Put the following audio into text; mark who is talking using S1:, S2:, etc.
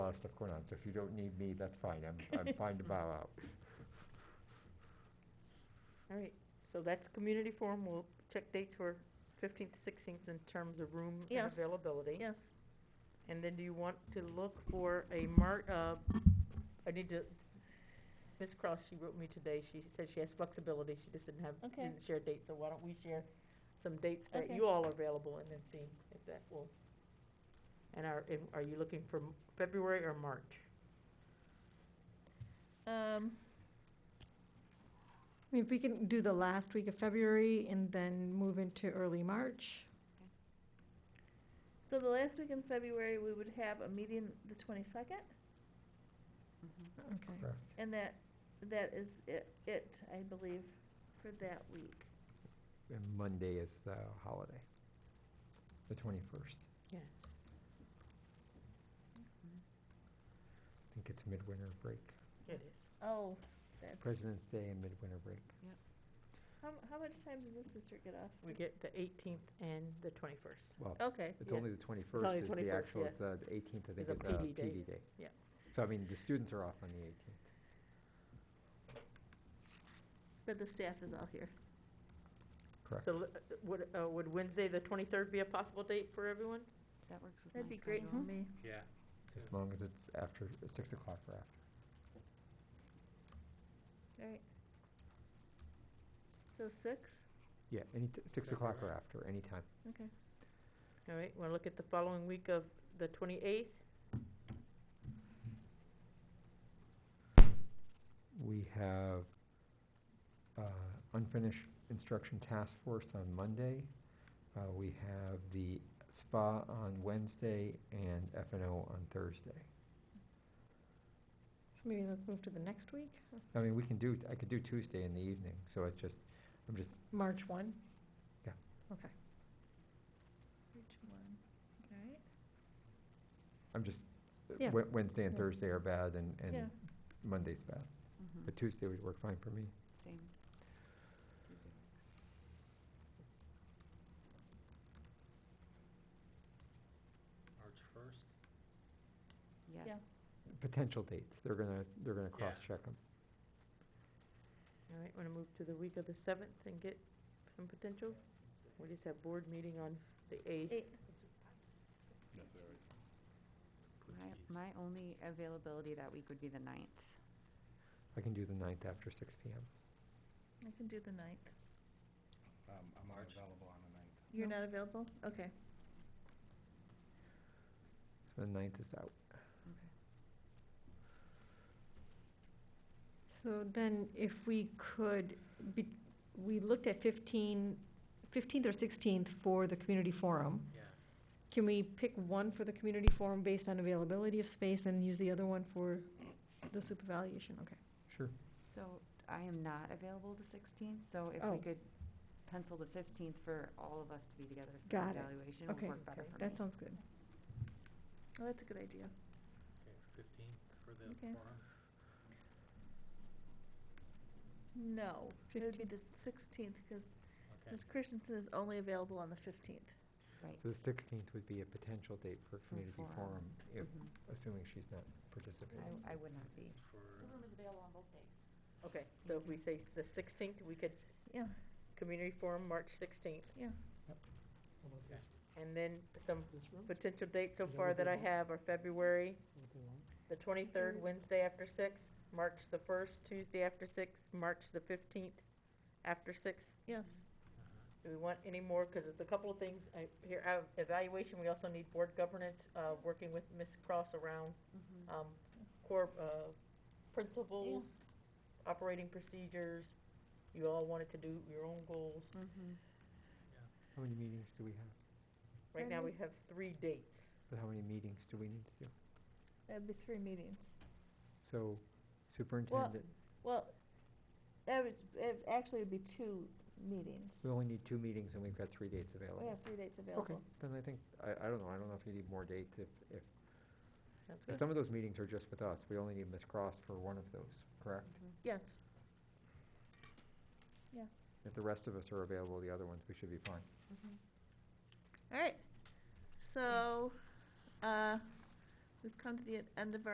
S1: lot of stuff going on, so if you don't need me, that's fine, I'm, I'm fine to bow out.
S2: All right, so that's community forum, we'll check dates for fifteenth, sixteenth in terms of room and
S3: Yes.
S2: availability.
S3: Yes.
S2: And then do you want to look for a mar, uh, I need to, Ms. Cross, she wrote me today, she said she has flexibility, she just didn't have,
S3: Okay.
S2: didn't share dates, so why don't we share some dates that
S3: Okay.
S2: you all are available and then see if that will. And are, and are you looking for m- February or March?
S3: Um,
S4: I mean, if we can do the last week of February and then move into early March,
S3: so the last week in February, we would have a meeting the twenty-second,
S4: okay.
S3: and that, that is it, it, I believe, for that week.
S1: And Monday is the holiday, the twenty-first,
S2: Yes.
S1: I think it's midwinter break,
S2: It is.
S3: Oh, that's,
S1: President's Day and midwinter break.
S3: how, how much time does this district get off?
S2: We
S3: Just-
S2: get the eighteenth and the twenty-first.
S1: Well,
S3: Okay,
S1: it's
S2: Oh, yeah.
S1: only the
S2: only
S1: twenty-first is the
S2: 21st,
S1: actual,
S2: yeah.
S1: it's uh, the eighteenth, I think,
S2: It's
S1: is a
S2: a PD day.
S1: PD day.
S2: Yeah.
S1: So I mean, the students are off on the eighteenth.
S3: but the staff is all here.
S1: Correct.
S2: So uh, would, uh, would Wednesday, the twenty-third be a possible date for everyone?
S5: That works with my
S3: That'd be great Mm-hmm. for
S5: schedule.
S3: me.
S6: Yeah.
S1: As long as it's after, six o'clock or after.
S3: All right. So six?
S1: Yeah, any, t- six
S6: That'd be
S1: o'clock or
S6: right.
S1: after, anytime.
S2: All right, want to look at the following week of the twenty-eighth?
S1: We have uh, unfinished instruction task force on Monday. Uh, We have the SPA on Wednesday and FNO on Thursday.
S4: So maybe let's move to the next week,
S1: I mean, we can do, I could do Tuesday in the evening, so it's just, I'm just,
S4: March one.
S3: Which one? All right.
S1: I'm just, uh,
S4: Yeah.
S1: Wed- Wednesday and
S4: Yeah.
S1: Thursday are bad and, and
S3: Yeah.
S1: Monday's bad.
S5: Mhm.
S1: But Tuesday would work fine for me.
S5: Same. Tuesday works.
S6: March first?
S5: Yes.
S1: Potential dates, they're gonna, they're gonna
S6: Yeah.
S1: cross-check them.
S2: All right, want to move to the week of the seventh and get some potential? We just have board meeting on the eighth.
S3: Eight,
S5: My, my only availability that week would be the ninth.
S1: I can do the ninth after six P M.
S3: I can do the ninth.
S7: Um, I'm
S6: March.
S7: unavailable on the ninth.
S3: You're not available? Okay.
S1: So the ninth is out.
S4: So then if we could, be- we looked at 15, 15th or 16th for the community forum.
S6: Yeah.
S4: Can we pick one for the community forum based on availability of space and use the other one for the soup evaluation? Okay.
S1: Sure.
S5: So I am not available the sixteenth, so if we
S4: Oh.
S5: could pencil the fifteenth for all of us to be together for
S4: Got it.
S5: evaluation, it would
S4: Okay.
S5: work better
S2: Okay.
S5: for me.
S4: That sounds good.
S3: Well, that's a good idea.
S6: Fifteen for the
S3: Okay.
S6: forum.
S3: No, it would be the sixteenth, because
S6: Okay.
S3: Ms. Christensen is only available on the fifteenth.
S5: Right.
S1: So the sixteenth would be a potential date for community
S5: forum.
S1: forum, if,
S5: Mhm.
S1: assuming she's not participating.
S5: I, I would not be.
S6: For,
S5: is available on both dates.
S2: Okay, so if we say the sixteenth, we could,
S3: Yeah,
S2: community forum, March sixteenth.
S3: yeah.
S6: okay.
S2: And then some potential dates so
S7: Is that
S2: far
S7: what they
S2: that I
S7: want?
S2: have are February,
S7: That's
S2: the twenty-third, Wednesday after six, March the first, Tuesday after six, March the fifteenth after six.
S3: Yes.
S2: Do we want any more? Because it's a couple of things I- here, uh, evaluation, we also need board governance, uh, working with Ms. Cross around um, core uh, principles, operating procedures. You all wanted to do your own goals.
S5: Mm-hmm.
S1: How many meetings do we have?
S2: Right now, we have three dates.
S1: But how many meetings do we need to do?
S3: That'd be three meetings.
S1: So superintendent,
S3: Well, that would, it actually would be two meetings.
S1: we only need two meetings and we've got three dates
S3: We
S1: available.
S3: have three dates
S1: Okay,
S3: available.
S1: then I think, I, I don't know, I don't know if you need more dates, if, if,
S2: Sounds
S1: if
S2: good.
S1: some of those meetings are just with us, we only need Ms. Cross for one of those, correct?
S3: Yes.
S1: If the rest of us are available, the other ones, we should be fine.
S3: All right. So, uh, We've come to the end of our